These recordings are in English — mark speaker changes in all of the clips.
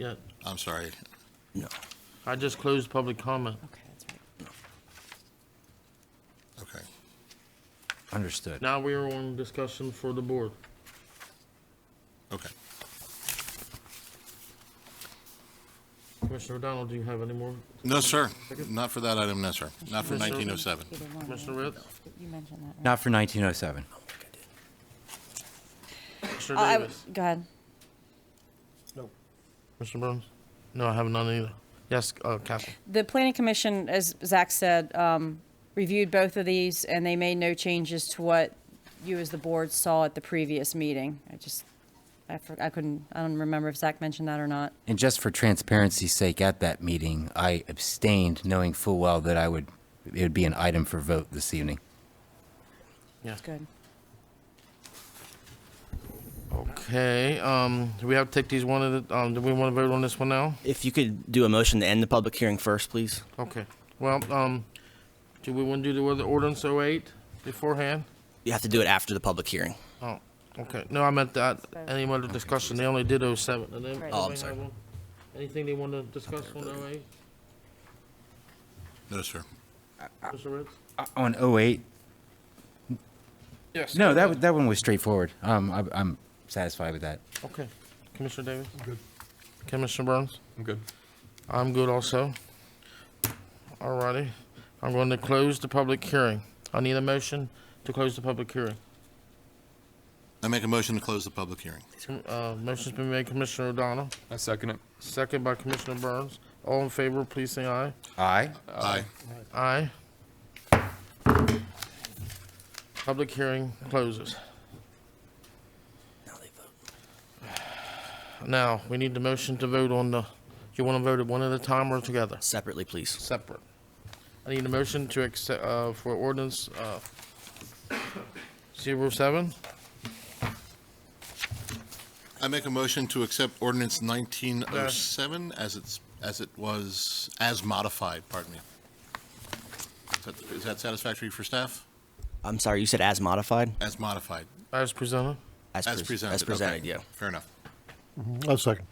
Speaker 1: Yeah,
Speaker 2: I'm sorry.
Speaker 3: No.
Speaker 1: I just closed public comment.
Speaker 4: Okay, that's right.
Speaker 2: Okay.
Speaker 3: Understood.
Speaker 1: Now we are on discussion for the board.
Speaker 2: Okay.
Speaker 1: Commissioner O'Donnell, do you have any more?
Speaker 2: No, sir. Not for that item, no, sir. Not for
Speaker 1: Yes, sir.
Speaker 2: 1907.
Speaker 4: Either one.
Speaker 1: Commissioner
Speaker 4: right?
Speaker 1: Ritz?
Speaker 4: You mentioned that. right?
Speaker 3: Not for 1907.
Speaker 1: Commissioner
Speaker 4: Uh, I w-
Speaker 1: Davis?
Speaker 4: Go ahead.
Speaker 1: Commissioner Burns? No, I have none either. Yes, uh, Captain.
Speaker 4: The planning commission, as Zach said, um, reviewed both of these and they made no changes to what you as the board saw at the previous meeting. I just, I for- I couldn't, I don't remember if Zach mentioned that or not.
Speaker 3: And just for transparency's sake, at that meeting, I abstained, knowing full well that I would, it would be an item for vote this evening.
Speaker 1: Yeah.
Speaker 4: Good.
Speaker 1: Okay, um, do we have to take these one at a, um, do we want to vote on this one now?
Speaker 5: If you could do a motion to end the public hearing first, please.
Speaker 1: Okay, well, um, do we want to do the other ordinance 08 beforehand?
Speaker 5: You have to do it after the public hearing.
Speaker 1: Oh, okay, no, I meant that, any other discussion, they only did 07. And then-
Speaker 4: Right.
Speaker 5: Oh, I'm
Speaker 1: anybody
Speaker 5: sorry.
Speaker 1: have one? Anything they want to discuss on 08,
Speaker 2: No, sir.
Speaker 1: Commissioner Ritz?
Speaker 3: On 08?
Speaker 1: Yes.
Speaker 3: No, that, wa- that one was straightforward. Um, I- I'm satisfied with that.
Speaker 1: Okay. Commissioner Davis? I'm good. Commissioner Burns?
Speaker 6: I'm good.
Speaker 1: I'm good also. All righty. I'm going to close the public hearing. I need a motion to close the public hearing.
Speaker 2: I make a motion to close the public hearing.
Speaker 1: Uh, motion's been made, Commissioner O'Donnell,
Speaker 6: I second it.
Speaker 1: second by Commissioner Burns. All in favor, please say aye.
Speaker 3: Aye?
Speaker 2: Aye.
Speaker 1: Aye. Public hearing closes.
Speaker 5: Now they vote.
Speaker 1: Now, we need the motion to vote on the, you want to vote it one at a time or together?
Speaker 5: Separately, please.
Speaker 1: separate. I need a motion to accept, uh, for ordinance, uh, zero seven.
Speaker 2: I make a motion to accept ordinance 1907 as it's, as it was, as modified, pardon me. Is that- Is that satisfactory for staff?
Speaker 5: I'm sorry, you said as modified?
Speaker 2: As modified,
Speaker 1: as presented.
Speaker 2: as
Speaker 5: pres-
Speaker 2: presented.
Speaker 5: As presented,
Speaker 2: okay.
Speaker 5: yeah.
Speaker 2: Fair enough.
Speaker 7: I'll second.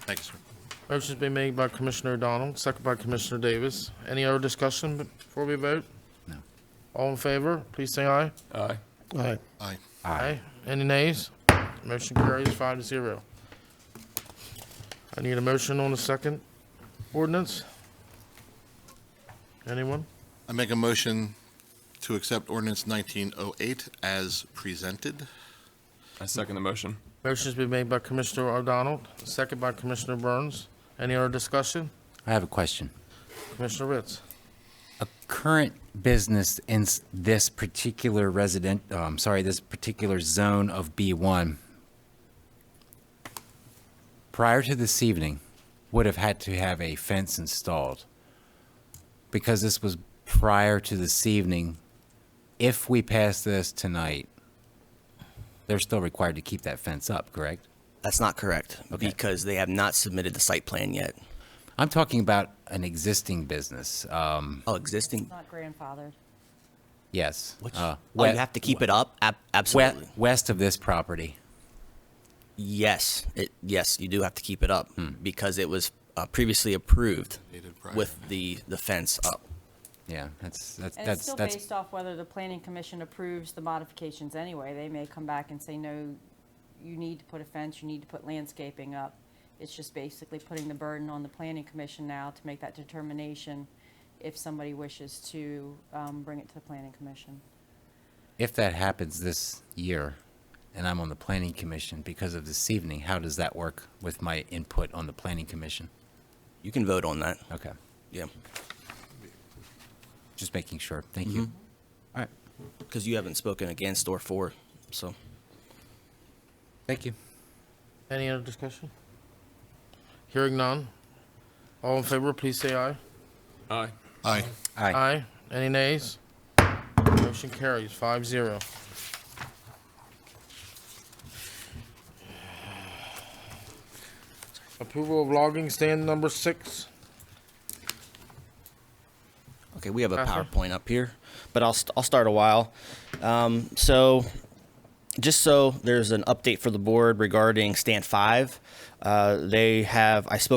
Speaker 2: Thank you, sir.
Speaker 1: Motion's been made by Commissioner O'Donnell, second by Commissioner Davis. Any other discussion before we vote?
Speaker 3: No.
Speaker 1: All in favor, please say aye.
Speaker 6: Aye.
Speaker 7: All right.
Speaker 2: Aye.
Speaker 1: Aye. Any nays? Motion carries five to zero. I need a motion on the second ordinance. Anyone?
Speaker 2: I make a motion to accept ordinance 1908 as presented.
Speaker 6: I second the motion.
Speaker 1: Motion's been made by Commissioner O'Donnell, second by Commissioner Burns. Any other discussion?
Speaker 3: I have a question.
Speaker 1: Commissioner Ritz.
Speaker 3: A current business in s- this particular resident, oh, I'm sorry, this particular zone of B1, prior to this evening, would have had to have a fence installed. Because this was prior to this evening, if we pass this tonight, they're still required to keep that fence up, correct?
Speaker 5: That's not correct, because they have not submitted the site plan yet.
Speaker 3: I'm talking about an existing business, um,
Speaker 5: Oh, existing?
Speaker 4: Not grandfathered.
Speaker 3: yes.
Speaker 5: Which,
Speaker 3: uh,
Speaker 5: oh, you have to keep it up? Ab-
Speaker 3: we-
Speaker 5: Absolutely.
Speaker 3: West of this property.
Speaker 5: Yes, it, yes, you do have to keep it up, because it was uh, previously approved
Speaker 2: Hmm. Dated prior.
Speaker 5: with the, the fence up.
Speaker 3: Yeah, that's, that's,
Speaker 4: And it's
Speaker 3: that's,
Speaker 4: still
Speaker 3: that's,
Speaker 4: based off whether the planning commission approves the modifications anyway. They may come back and say, no, you need to put a fence, you need to put landscaping up. It's just basically putting the burden on the planning commission now to make that determination if somebody wishes to um, bring it to the planning commission.
Speaker 3: if that happens this year, and I'm on the planning commission because of this evening, how does that work with my input on the planning commission?
Speaker 5: You can vote on that,
Speaker 3: Okay,
Speaker 5: yeah,
Speaker 3: just making sure, thank you. All right,
Speaker 5: because you haven't spoken against or for, so.
Speaker 3: thank you.
Speaker 1: Any other discussion? Hearing none. All in favor, please say aye.
Speaker 6: Aye.
Speaker 2: Aye.
Speaker 3: Aye.
Speaker 1: Any nays? Motion carries five zero. Approval of logging stand number six.
Speaker 5: Okay, we have a
Speaker 1: Uh-huh.
Speaker 5: PowerPoint up here, but I'll, st- I'll start a while. Um, so just so there's an update for the board regarding stand five, uh, they have, I spoke